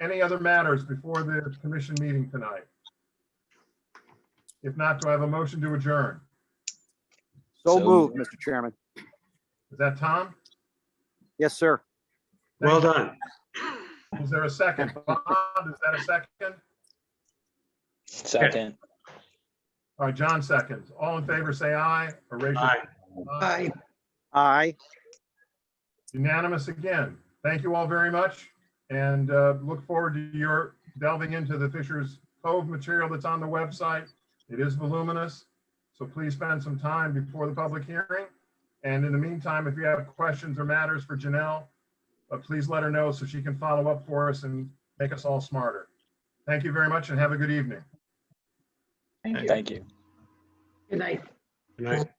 any other matters before the commission meeting tonight? If not, do I have a motion to adjourn? So So moved, Mr. Chairman. Is that Tom? Yes, sir. Well done. Is there a second? Bob, is that a second? Second. All right, John seconds. All in favor, say aye or raise your. Aye. Aye. Aye. Unanimous again. Thank you all very much and uh, look forward to your delving into the Fisher's Cove material that's on the website. It is voluminous, so please spend some time before the public hearing. And in the meantime, if you have questions or matters for Janelle, uh, please let her know so she can follow up for us and make us all smarter. Thank you very much and have a good evening. Thank you. Thank you. Good night. Good night.